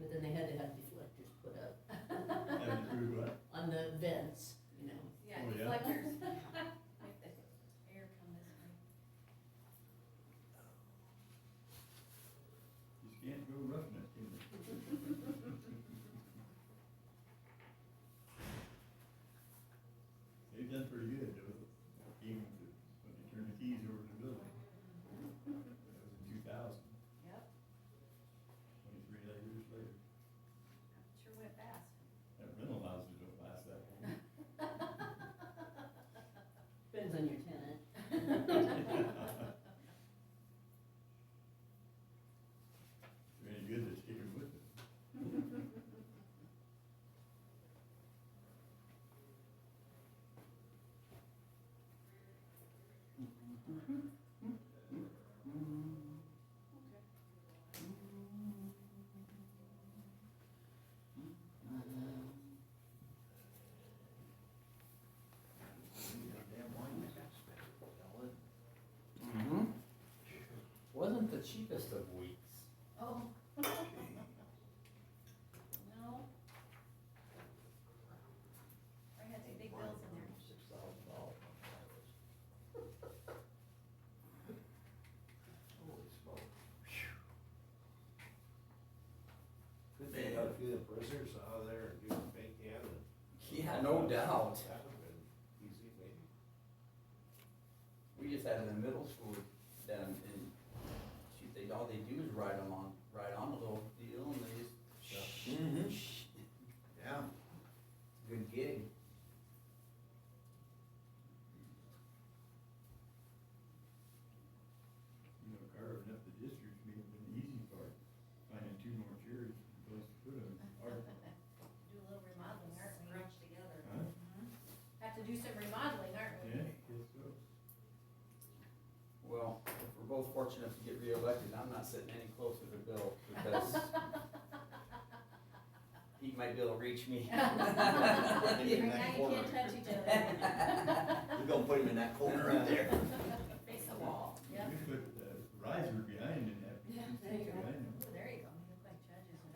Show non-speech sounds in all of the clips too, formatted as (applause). but then they had to have deflectors put up And through what? on the vents, you know. Yeah, Oh, yeah. deflectors. Make the air come this way. You can't go roughing it, can you? (laughs) They've done pretty good, though, even to- when they turned the keys over to the building. That was in two thousand, Yep, twenty-three years later. sure went fast. That rental houses don't last that long. Depends on your tenant. (laughs) (laughs) They're any good at sticking with it. Damn wine was expensive, wasn't it? Mm-hmm. Wasn't the cheapest of weeks. Oh. (laughs) No. I had some big bills in there. Six thousand dollars. on the highways. Holy smoke. Good thing about a few of the prisoners out of there and give them big hand and. Yeah, no doubt. That would've been easy, maybe. We just had it in middle school down and shoot, they, all they do is ride them on, ride on a little deal and they just. Yeah. Mm-hmm. (laughs) Yeah. Good gig. You know, carving up the districts may have been the easy part, finding two more chairs and a place to put them, or, Do a little remodeling, aren't we? Scrunch together. huh? Have to do some remodeling, aren't we? Yeah, guess so. Well, if we're both fortunate enough to get reelected, I'm not sitting any closer to Bill because he might be able to reach (laughs) me. Now you In that corner. can't touch each other. We're gonna put him in that corner right (laughs) there. Face the wall, yep. You could put the riser behind and have Yeah, two there you seats go. behind them. Oh, there you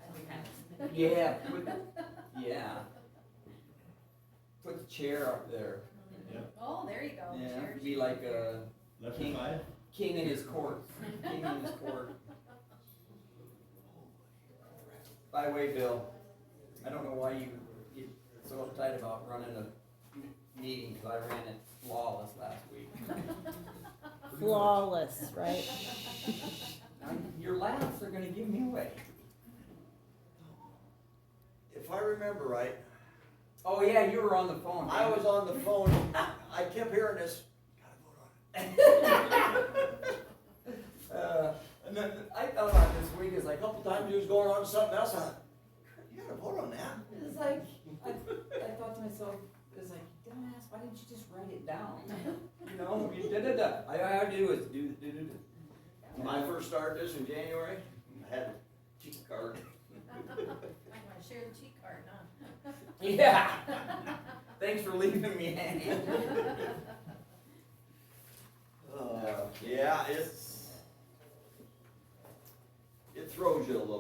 go, you look like judges. when That'd be I nice. see that. Yeah, put, yeah. Put the chair up there. Yep. Oh, there you go. Yeah, Cheers. be like uh, a Left King. side, king in his court, king in his court. By the way, Bill, I don't know why you get so uptight about running a m- meeting, cause I ran it flawless last week. flawless, right? Now, your laughs are gonna give me away. If I remember right, Oh yeah, you were on the phone. I was on the phone, I kept hearing this, gotta vote on it. Uh, and then I thought about this week, it's like, oh. A couple times he was going on to something else, I, you gotta vote on that. It's like, I, I thought to myself, it's like, dumbass, why didn't you just write it (laughs) down? You know, you da da da, I, I had to do is do, do, do, do. When I first started this in January, I had a cheat card. (laughs) Might wanna share the cheat card, huh? Yeah. (laughs) Thanks for leaving me hanging. Uh, yeah, it's, it throws you a little